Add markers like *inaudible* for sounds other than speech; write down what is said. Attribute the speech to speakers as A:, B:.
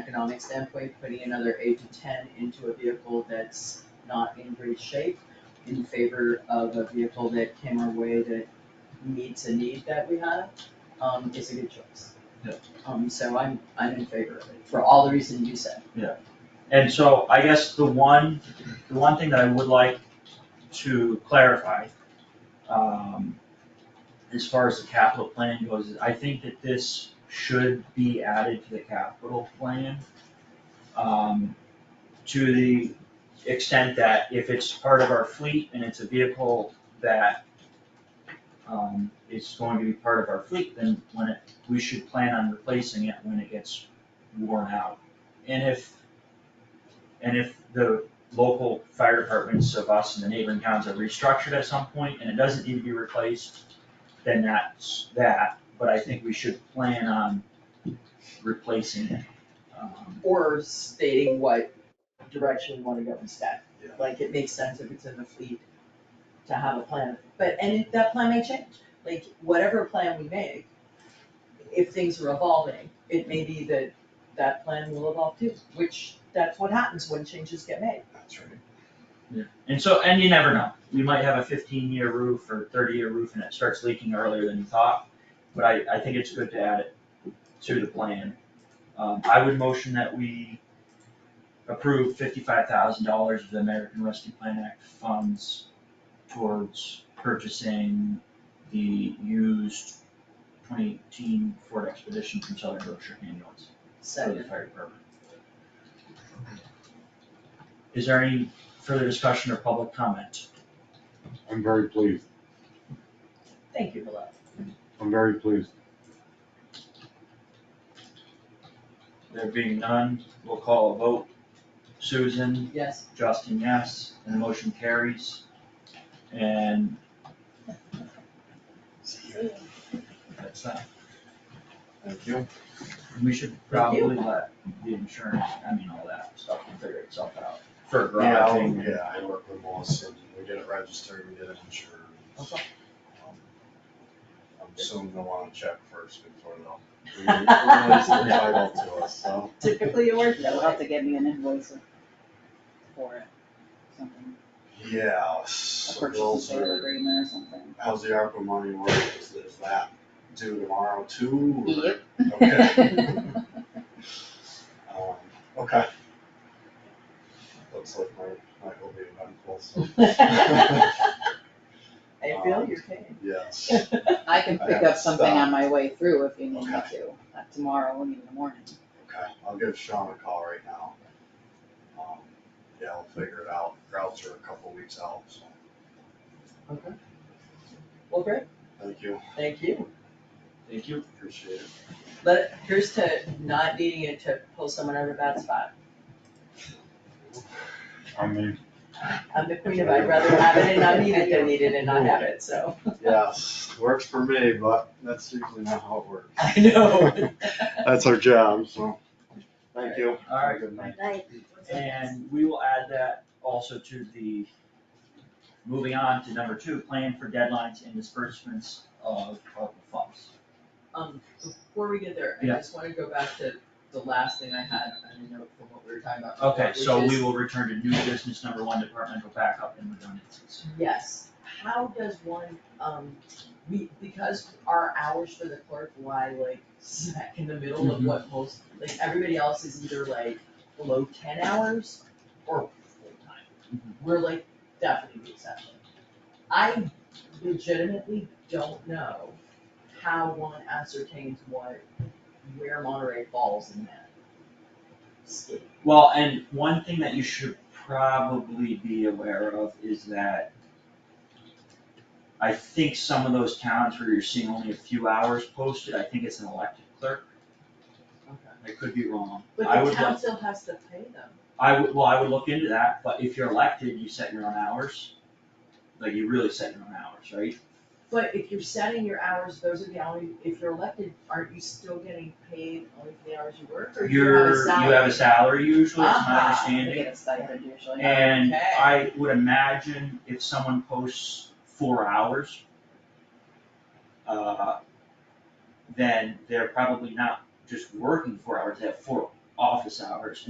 A: economic standpoint, putting another eight to ten into a vehicle that's not in great shape in favor of a vehicle that came our way that meets a need that we have, um, is a good choice.
B: Yeah.
A: Um, so I'm, I'm in favor of it, for all the reasons you said.
B: And so I guess the one, the one thing that I would like to clarify, um, as far as the capital plan goes, is I think that this should be added to the capital plan. Um, to the extent that if it's part of our fleet and it's a vehicle that um, is going to be part of our fleet, then when it, we should plan on replacing it when it gets worn out. And if and if the local fire departments of us and the neighboring towns are restructured at some point and it doesn't need to be replaced, then that's that, but I think we should plan on replacing it. Um,
A: Or stating what direction we wanna go instead.
B: Yeah.
A: Like, it makes sense if it's in the fleet to have a plan, but, and if that plan may change, like, whatever plan we make, if things are evolving, it may be that that plan will evolve too, which, that's what happens when changes get made.
C: That's right.
B: And so, and you never know, we might have a fifteen year roof or thirty year roof and it starts leaking earlier than you thought, but I, I think it's good to add it to the plan. Um, I would motion that we approve fifty-five thousand dollars of the American Rescue Plan Act funds towards purchasing the used twenty eighteen Ford Expedition from Southern Berkshire ambulance for the
A: Second,
B: fire department. Is there any further discussion or public comment?
C: I'm very pleased.
A: thank you, Bilal.
C: I'm very pleased.
B: There being none, we'll call a vote. Susan,
A: Yes,
B: Justin, yes, and the motion carries. And that's that.
C: Thank you.
B: We should probably let the insurance, I mean, all that stuff can figure itself out for
C: Yeah, I-
B: garaging.
C: yeah, I work with Melissa, and we get it registered, we get it insured.
A: Okay.
C: Um, I'm assuming they'll wanna check first before *laughs* they'll release the title to us, so.
D: Typically, it works that
A: They'll
D: way.
A: have
D: to get me an invoice for it, something,
C: Yeah, so those are,
D: agreement or something.
C: how's the ARPA money work, is, is that due tomorrow too? or-
D: Yep.
C: *laughs* Okay, um, okay. Looks like my, my will be eventful, *laughs* so,
A: *laughs* I feel your pain.
C: yes.
D: I can
C: I
D: pick
C: have
D: up something
C: stuff.
D: on my way through if you need me
C: Okay.
D: to, not tomorrow, we need in the morning.
C: Okay, I'll give Sean a call right now. Um, Yeah, I'll figure it out, routes are a couple weeks out, so,
A: Okay. Well, great,
C: thank you,
A: thank you.
B: Thank you.
C: appreciate *laughs* it.
A: But here's to not needing it to pull someone out of a bad spot.
C: I mean.
A: I'm the queen of I'd rather have it and not need it than need it and not have it, so. *laughs*
C: Yes, works for me, but that's usually not how it works.
A: I know.
C: That's our job, so, thank you.
B: All right.
C: Good night.
B: And we will add that also to the, moving on to number two, plan for deadlines and disbursements of ARPA funds.
A: Um, before we get there, I
B: Yeah.
A: just wanna go back to the last thing I had on the note from what we were talking about.
B: Okay, so
A: which
B: we
A: is-
B: will return to new business number one, departmental backup and redundancies.
A: Yes, how does one, um, we, because our hours for the clerk lie like smack in the middle of
B: Mhm.
A: what most, like, everybody else is either like below ten hours or full-time.
B: Mm-hmm.
A: We're like definitely the exception. I legitimately don't know how one ascertains what, where Monterey falls in that scheme.
B: Well, and one thing that you should probably be aware of is that I think some of those towns where you're seeing only a few hours posted, I think it's an elected clerk, I could be wrong. I
A: But the
B: would
A: town
B: look,
A: still has to pay them.
B: I would, well, I would look into that, but if you're elected, you set your own hours. Like, you really set your own hours, right?
A: But if you're setting your hours, those are the hours, if you're elected, aren't you still getting paid only for the hours you work, or do you have a
B: You're, you
A: salary?
B: have a salary usually, it's my
A: Ah,
D: I
B: understanding.
D: get a stipend usually.
B: And
A: Okay.
B: I would imagine if someone posts four hours, uh, then they're probably not just working four hours, they have four office hours